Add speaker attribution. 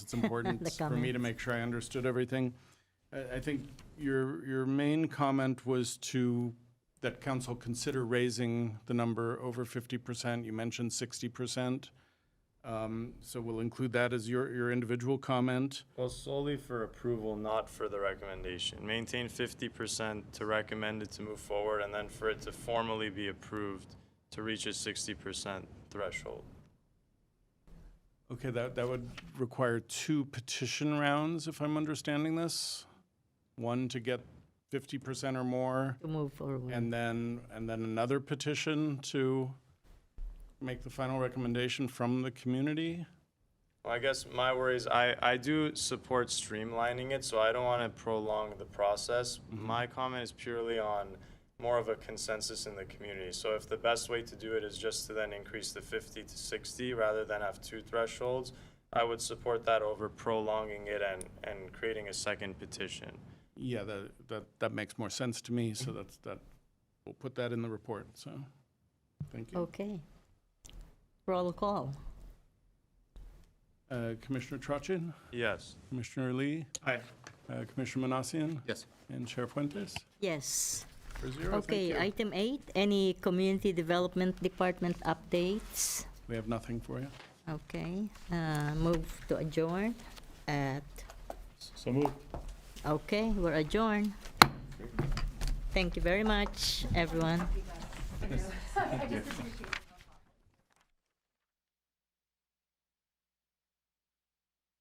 Speaker 1: it's important
Speaker 2: The
Speaker 1: for me to make sure I understood everything. I, I think your, your main comment was to, that council consider raising the number over fifty percent. You mentioned sixty percent. Um, so we'll include that as your, your individual comment.
Speaker 3: Well, solely for approval, not for the recommendation. Maintain fifty percent to recommend it to move forward, and then for it to formally be approved to reach a sixty percent threshold.
Speaker 1: Okay, that, that would require two petition rounds, if I'm understanding this. One to get fifty percent or more,
Speaker 2: to move forward.
Speaker 1: and then, and then another petition to make the final recommendation from the community?
Speaker 3: Well, I guess my worry is I, I do support streamlining it, so I don't want to prolong the process. My comment is purely on more of a consensus in the community. So if the best way to do it is just to then increase the 50 to 60 rather than have two thresholds, I would support that over prolonging it and, and creating a second petition.
Speaker 1: Yeah, that, that, that makes more sense to me, so that's, that, we'll put that in the report, so, thank you.
Speaker 2: Okay. Roll call.
Speaker 1: Uh, Commissioner Trochin,
Speaker 3: Yes.
Speaker 1: Commissioner Lee,
Speaker 3: Aye.
Speaker 1: uh, Commissioner Manassian,
Speaker 4: Yes.
Speaker 1: and Chair Fuentes,
Speaker 2: Yes.
Speaker 1: four zero, thank
Speaker 2: Okay,
Speaker 1: you.
Speaker 2: item eight, any community development department updates?
Speaker 1: We have nothing for you.
Speaker 2: Okay, uh, move to adjourn at,
Speaker 3: So move.
Speaker 2: okay, we're adjourned. Thank you very much, everyone.
Speaker 5: I just appreciate it.